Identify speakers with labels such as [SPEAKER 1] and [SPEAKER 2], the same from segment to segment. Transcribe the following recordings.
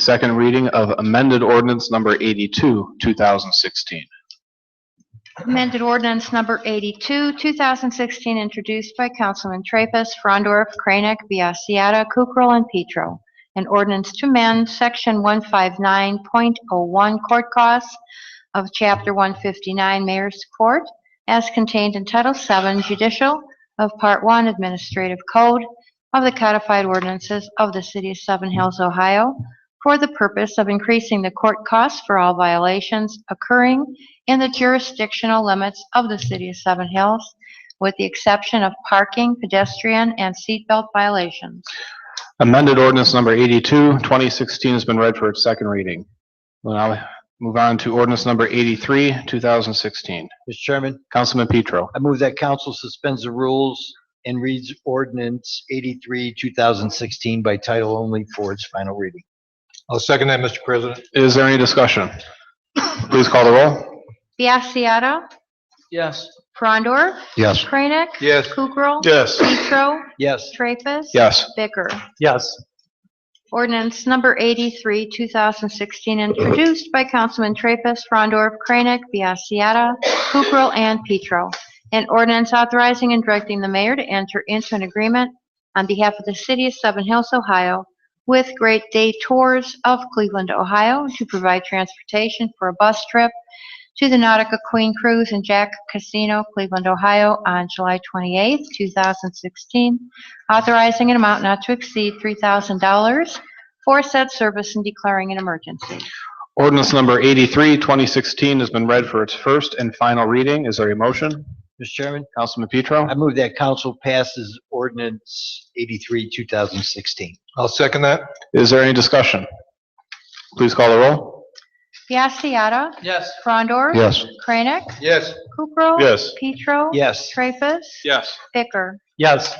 [SPEAKER 1] Second reading of amended ordinance number 82, 2016.
[SPEAKER 2] Amended ordinance number 82, 2016, introduced by Councilman Traffus, Frondorf, Kranek, Biassiata, Kukrow, and Petro. An ordinance to amend Section 159.01 Court Costs of Chapter 159 Mayor's Court as contained in Title VII Judicial of Part 1 Administrative Code of the Codified Ordinances of the City of Seven Hills, Ohio, for the purpose of increasing the court costs for all violations occurring in the jurisdictional limits of the city of Seven Hills, with the exception of parking, pedestrian, and seatbelt violations.
[SPEAKER 1] Amended ordinance number 82, 2016 has been read for its second reading. We'll now move on to ordinance number 83, 2016.
[SPEAKER 3] Mr. Chairman,
[SPEAKER 1] Councilman Petro.
[SPEAKER 3] I move that council suspends the rules and reads ordinance 83, 2016 by title only for its final reading.
[SPEAKER 4] I'll second that, Mr. President.
[SPEAKER 1] Is there any discussion? Please call the roll.
[SPEAKER 2] Biassiata.
[SPEAKER 3] Yes.
[SPEAKER 2] Frondor.
[SPEAKER 1] Yes.
[SPEAKER 2] Kranek.
[SPEAKER 4] Yes.
[SPEAKER 2] Kukrow.
[SPEAKER 1] Yes.
[SPEAKER 2] Petro.
[SPEAKER 3] Yes.
[SPEAKER 2] Traffus.
[SPEAKER 1] Yes.
[SPEAKER 2] Bicker.
[SPEAKER 3] Yes.
[SPEAKER 2] Ordinance number 83, 2016, introduced by Councilman Traffus, Frondorf, Kranek, Biassiata, Kukrow, and Petro. An ordinance authorizing and directing the mayor to enter into an agreement on behalf of the city of Seven Hills, Ohio, with Great Day Tours of Cleveland, Ohio, to provide transportation for a bus trip to the Nautica Queen Cruise and Jack Casino, Cleveland, Ohio, on July 28, 2016, authorizing an amount not to exceed $3,000 for said service and declaring an emergency.
[SPEAKER 1] Ordinance number 83, 2016 has been read for its first and final reading. Is there a motion?
[SPEAKER 3] Mr. Chairman,
[SPEAKER 1] Councilman Petro.
[SPEAKER 3] I move that council passes ordinance 83, 2016.
[SPEAKER 4] I'll second that.
[SPEAKER 1] Is there any discussion? Please call the roll.
[SPEAKER 2] Biassiata.
[SPEAKER 4] Yes.
[SPEAKER 2] Frondor.
[SPEAKER 1] Yes.
[SPEAKER 2] Kranek.
[SPEAKER 4] Yes.
[SPEAKER 2] Kukrow.
[SPEAKER 1] Yes.
[SPEAKER 2] Petro.
[SPEAKER 3] Yes.
[SPEAKER 2] Traffus.
[SPEAKER 1] Yes.
[SPEAKER 2] Bicker.
[SPEAKER 3] Yes.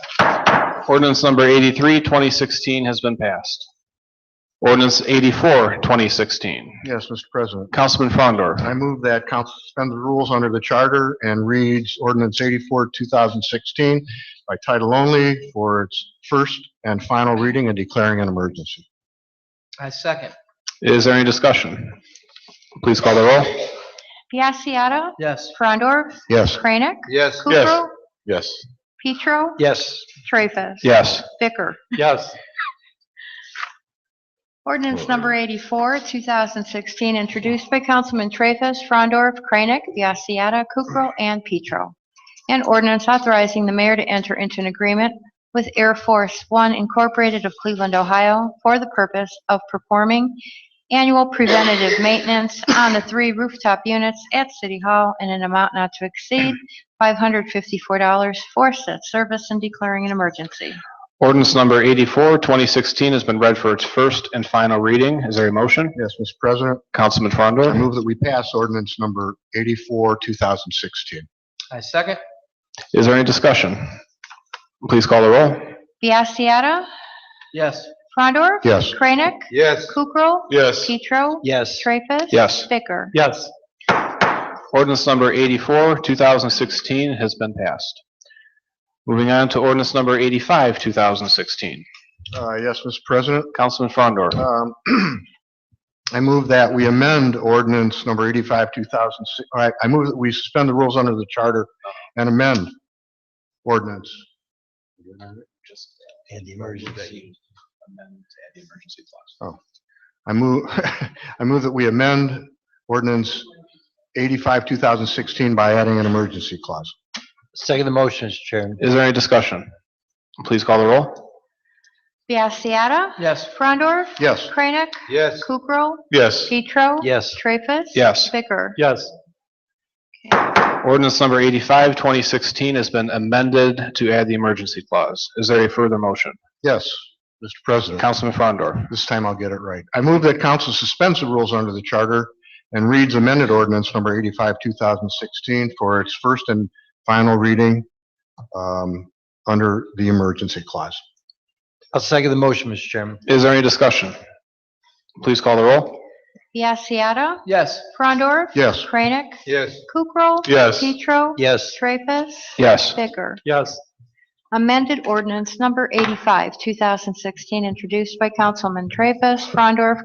[SPEAKER 1] Ordinance number 83, 2016 has been passed. Ordinance 84, 2016.
[SPEAKER 5] Yes, Mr. President.
[SPEAKER 1] Councilman Frondor.
[SPEAKER 5] I move that council suspend the rules under the charter and reads ordinance 84, 2016 by title only for its first and final reading and declaring an emergency.
[SPEAKER 6] I second.
[SPEAKER 1] Is there any discussion? Please call the roll.
[SPEAKER 2] Biassiata.
[SPEAKER 6] Yes.
[SPEAKER 2] Frondor.
[SPEAKER 5] Yes.
[SPEAKER 2] Kranek.
[SPEAKER 4] Yes.
[SPEAKER 1] Yes.
[SPEAKER 2] Kukrow.
[SPEAKER 5] Yes.
[SPEAKER 2] Petro.
[SPEAKER 3] Yes.
[SPEAKER 2] Traffus.
[SPEAKER 1] Yes.
[SPEAKER 2] Bicker.
[SPEAKER 3] Yes.
[SPEAKER 2] Ordinance number 84, 2016, introduced by Councilman Traffus, Frondorf, Kranek, Biassiata, Kukrow, and Petro. An ordinance authorizing the mayor to enter into an agreement with Air Force One Incorporated of Cleveland, Ohio, for the purpose of performing annual preventative maintenance on the three rooftop units at City Hall in an amount not to exceed $554 for said service and declaring an emergency.
[SPEAKER 1] Ordinance number 84, 2016 has been read for its first and final reading. Is there a motion?
[SPEAKER 5] Yes, Mr. President.
[SPEAKER 1] Councilman
[SPEAKER 5] I
[SPEAKER 1] Frondor.
[SPEAKER 5] move that we pass ordinance number 84, 2016.
[SPEAKER 6] I second.
[SPEAKER 1] Is there any discussion? Please call the roll.
[SPEAKER 2] Biassiata,
[SPEAKER 6] Yes.
[SPEAKER 2] Frondorf,
[SPEAKER 5] Yes.
[SPEAKER 2] Kranek,
[SPEAKER 4] Yes.
[SPEAKER 2] Kukrow.
[SPEAKER 1] Yes.
[SPEAKER 2] Petro.
[SPEAKER 3] Yes.
[SPEAKER 2] Traffus.
[SPEAKER 1] Yes.
[SPEAKER 2] Bicker.
[SPEAKER 3] Yes.
[SPEAKER 1] Ordinance number 84, 2016 has been passed. Moving on to ordinance number 85, 2016.
[SPEAKER 5] Uh, Yes, Mr. President.
[SPEAKER 1] Councilman Frondor.
[SPEAKER 5] Um, I move that we amend ordinance number 85, 2006, all right, I move that we suspend the rules under the charter and amend ordinance.
[SPEAKER 3] And the emergency.
[SPEAKER 5] I move, I move that we amend ordinance 85, 2016 by adding an emergency clause.
[SPEAKER 3] Second the motion, Mr. Chairman.
[SPEAKER 1] Is there any discussion? Please call the roll.
[SPEAKER 2] Biassiata.
[SPEAKER 6] Yes.
[SPEAKER 2] Frondorf.
[SPEAKER 5] Yes.
[SPEAKER 2] Kranek.
[SPEAKER 4] Yes.
[SPEAKER 2] Kukrow.
[SPEAKER 1] Yes.
[SPEAKER 2] Petro.
[SPEAKER 3] Yes.
[SPEAKER 2] Traffus.
[SPEAKER 1] Yes.
[SPEAKER 2] Bicker.
[SPEAKER 3] Yes.
[SPEAKER 1] Ordinance number 85, 2016 has been amended to add the emergency clause. Is there a further motion?
[SPEAKER 5] Yes, Mr. President.
[SPEAKER 1] Councilman Frondor.
[SPEAKER 5] This time I'll get it right. I move that council suspends the rules under the charter and reads amended ordinance number 85, 2016 for its first and final reading um, under the emergency clause.
[SPEAKER 3] I'll second the motion, Mr. Chairman.
[SPEAKER 1] Is there any discussion? Please call the roll.
[SPEAKER 2] Biassiata.
[SPEAKER 6] Yes.
[SPEAKER 2] Frondorf.
[SPEAKER 5] Yes,
[SPEAKER 2] Kranek.
[SPEAKER 4] Yes.
[SPEAKER 2] Kukrow.
[SPEAKER 1] Yes.
[SPEAKER 2] Petro.
[SPEAKER 3] Yes.
[SPEAKER 2] Traffus.
[SPEAKER 1] Yes.
[SPEAKER 2] Bicker.
[SPEAKER 3] Yes.
[SPEAKER 2] Amended ordinance number 85, 2016, introduced by Councilman Traffus, Frondorf,